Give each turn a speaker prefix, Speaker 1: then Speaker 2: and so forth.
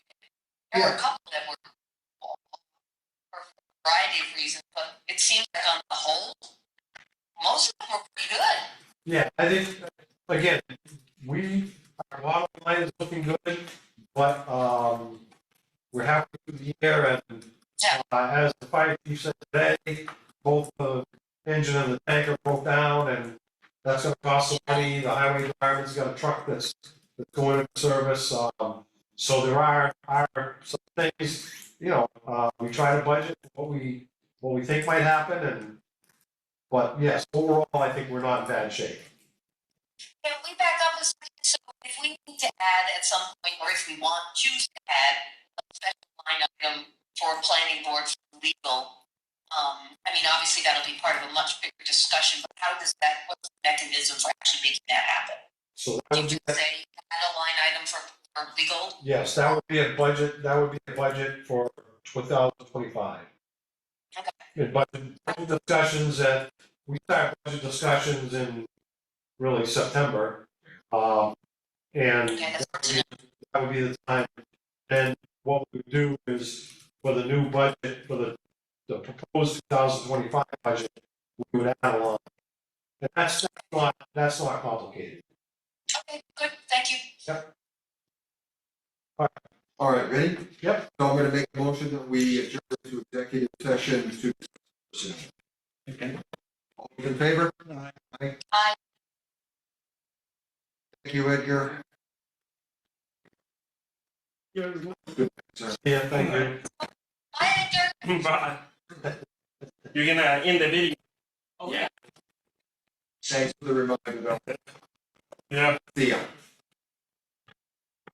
Speaker 1: There were a couple that were awful for a variety of reasons, but it seems like on the whole, most of them were pretty good.
Speaker 2: Yeah, I think, again, we, our bottom line is looking good, but, um, we're halfway through the year and
Speaker 1: Yeah.
Speaker 2: uh, as the fire chief said today, both the engine and the tanker broke down and that's gonna cost some money. The highway department's got a truck that's, that's going into service, um, so there are, are some things, you know, uh, we try to budget what we, what we think might happen and, but yes, overall, I think we're not in bad shape.
Speaker 1: Can we back up a second? So if we need to add at some point, or if we want, choose to add a special line item for planning board for legal, um, I mean, obviously that'll be part of a much bigger discussion, but how does that, what's the mechanism for actually making that happen?
Speaker 2: So that
Speaker 1: You
Speaker 2: would be,
Speaker 1: just say, add a line item for, for legal,
Speaker 2: yes, that would be a budget, that would be a budget for two thousand twenty-five.
Speaker 1: Okay.
Speaker 2: In budget budget discussions that, we start budget discussions in really September. Um, and
Speaker 1: Okay,
Speaker 2: that
Speaker 1: that's
Speaker 2: would be- that would be the time. Then what we would do is for the new budget, for the, the proposed two thousand twenty-five budget, we would add a line. And that's not, that's not complicated.
Speaker 1: okay, good, thank you.
Speaker 3: All right, ready?
Speaker 2: Yep.
Speaker 3: So I'm gonna make a motion that we adjourn to executive session to. All those in favor? Aye.
Speaker 1: Aye.
Speaker 3: Thank you, Edgar.
Speaker 2: Yeah, thank you.
Speaker 1: Bye, Edgar.
Speaker 4: Bye. You're gonna end the video. Yeah.
Speaker 3: Thanks for the reminder, though.
Speaker 4: Yeah.
Speaker 3: See ya.